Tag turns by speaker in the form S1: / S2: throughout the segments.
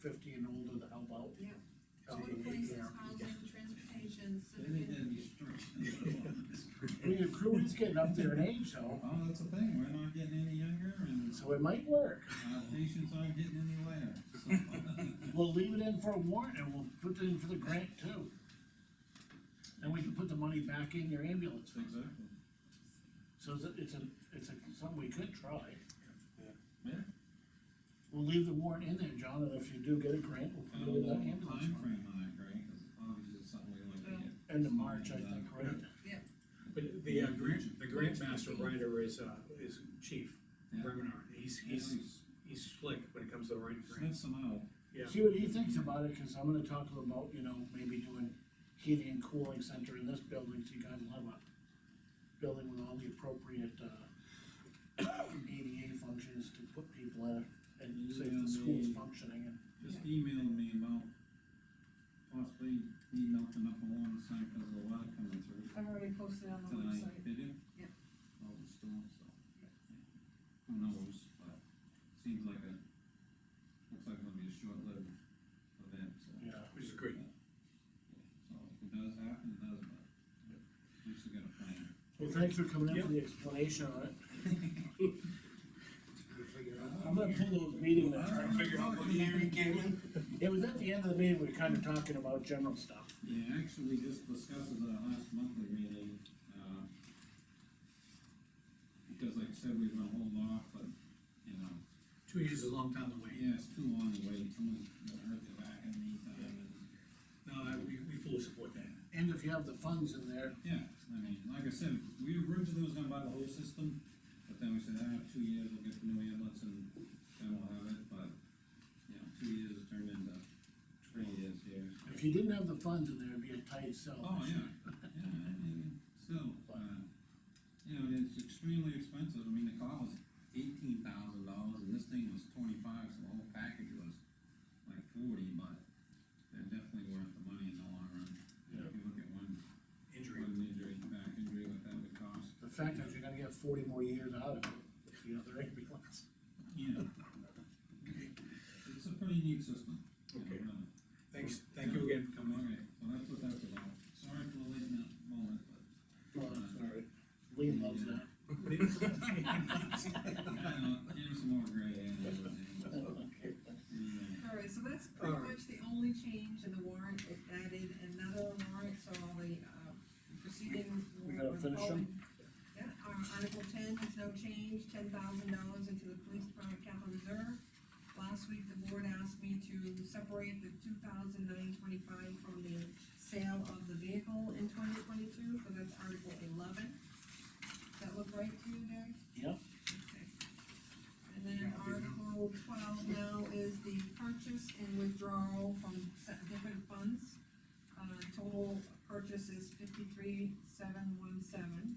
S1: fifty and older to help out.
S2: Yeah.
S1: Uh,
S2: All
S1: they
S2: places,
S1: care.
S2: housing, transportation,
S3: They
S2: citizen.
S3: need to be strict.
S1: I mean, the crew is getting up there in age, so,
S3: Well, that's the thing, we're not getting any younger and
S1: so it might work.
S3: our patients aren't getting any later, so.
S1: We'll leave it in for a warrant and we'll put it in for the grant too. And we can put the money back in your ambulance fund.
S3: Exactly.
S1: So it's a, it's a, it's a, something we could try.
S3: Yeah.
S1: We'll leave the warrant in there, John, and if you do get a grant,
S3: I
S1: we'll put it in
S3: don't know
S1: that
S3: what
S1: ambulance fund.
S3: timeframe on that, Greg, 'cause obviously it's something we like to get.
S1: End of March, I think, right?
S4: But the, uh, grant, the grant master writer is, uh, is chief
S3: Yeah.
S4: Remenar, he's, he's, he's slick when it comes to writing grants,
S3: Sniff some out,
S4: yeah.
S1: See what he thinks about it, cause I'm gonna talk to him about, you know, maybe doing heating and cooling center in this building, so you guys will have a building with all the appropriate, uh, ADA functions to put people in, and so if the school's functioning, and
S3: just emailed me about possibly needing open up along the side because of the water coming through
S2: I've already posted on the
S3: tonight,
S2: website.
S3: did you?
S2: Yeah.
S3: All the storm, so. Who knows, but seems like a, looks like it'll be a short-lived event, so.
S1: Yeah.
S4: Which is great.
S3: So if it does happen, it does, but at least we got a plan.
S1: Well, thanks for coming in for the explanation on it. I'm gonna pull those meeting minutes.
S5: Figure out what year you came in?
S1: It was at the end of the meeting, we were kinda talking about general stuff.
S3: Yeah, actually, just discussed at the last monthly meeting, uh, because like I said, we were gonna hold off, but, you know,
S4: Two years is a long time to wait,
S3: yeah, it's too long to wait, someone got hurt their back in the meantime, and,
S4: no, I- we, we fully support that.
S1: And if you have the funds in there,
S3: yeah, I mean, like I said, we originally was gonna buy the whole system, but then we said, ah, two years, we'll get the new ambulance, and then we'll have it, but, you know, two years turned into three years here.
S1: if you didn't have the funds in there, it'd be a tight sell.
S3: Oh, yeah, yeah, I mean, still, uh, you know, it's extremely expensive, I mean, the car was eighteen thousand dollars, and this thing was twenty-five, so the whole package was like forty, but they're definitely worth the money in the long run.
S1: Yeah.
S3: If you look at one,
S4: Injury,
S3: one injury, back injury, what that would cost,
S1: The fact is, you're gonna get forty more years out of it, if you have the ambulance.
S3: you know. It's a pretty neat system. you know,
S4: Okay.
S3: really.
S4: thanks, thank you again for
S3: Okay,
S4: coming in.
S3: well, that's what that's about, sorry for the late mo- moment, but.
S1: Well,
S3: Sorry.
S1: Lean loves that.
S3: Give me uh, some more gray hair. Yeah.
S2: All right, so that's pretty
S4: All right.
S2: much the only change in the warrant, it added another warrant, so all the, uh, proceeding.
S1: We gotta finish them?
S2: Yeah, uh, Article ten, there's no change, ten thousand dollars into the police department capital reserve. Last week, the board asked me to separate the two thousand nine twenty-five from the sale of the vehicle in twenty twenty-two, so that's Article eleven. Does that look right to you, Doug?
S1: Yep.
S2: Okay. And then Article twelve now is the purchase and withdrawal from se- different funds. Uh, total purchase is fifty-three, seven, one, seven.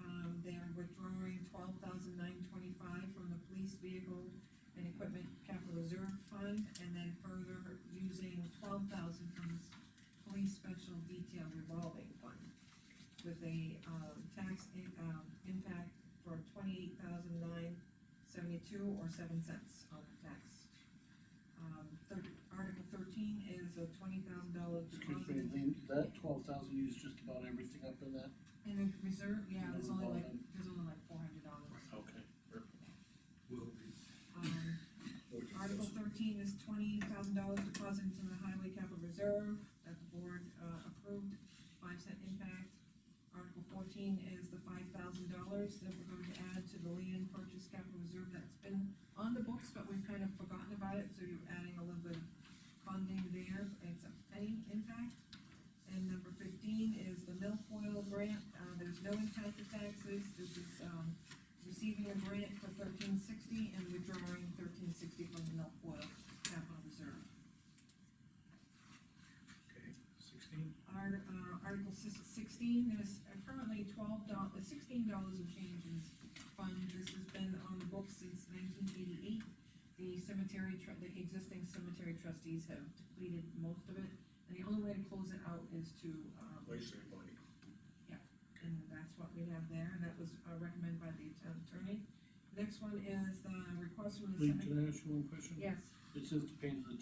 S2: Um, they are withdrawing twelve thousand nine twenty-five from the police vehicle and equipment capital reserve fund, and then further using twelve thousand from the s- police special detail revolving fund with a, um, tax, in- um, impact for twenty-eight thousand nine seventy-two or seven cents on the tax. Um, thir- Article thirteen is a twenty thousand dollar
S1: Excuse me,
S2: deposit
S1: Lean, that twelve thousand used just about everything up in that?
S2: in the reserve, yeah,
S1: In the
S2: there's only like,
S1: revolving.
S2: there's only like four hundred dollars.
S1: Okay.
S4: Will
S2: Um,
S4: be.
S2: Article thirteen is twenty thousand dollars deposit into the highway capital reserve that the board, uh, approved, five cent impact. Article fourteen is the five thousand dollars that we're going to add to the land purchase capital reserve that's been on the books, but we've kind of forgotten about it, so you're adding a little bit of funding there, it's a penny impact. And number fifteen is the milfoil grant, uh, there's no impact to taxes, this is, um, receiving a grant for thirteen sixty and withdrawing thirteen sixty from the milk oil capital reserve.
S4: Okay, sixteen,
S2: Art, uh, Article sis- sixteen, there's currently twelve dollars, sixteen dollars in changes fund, this has been on the books since nineteen eighty-eight. The cemetery, tru- the existing cemetery trustees have depleted most of it, and the only way to close it out is to, um,
S4: legislative body.
S2: and that's what we have there, and that was uh, recommended by the town attorney. Next one is the request from the
S1: Lean,
S2: cemetery.
S1: can I ask you one question?
S2: Yes.
S1: It says to pay to the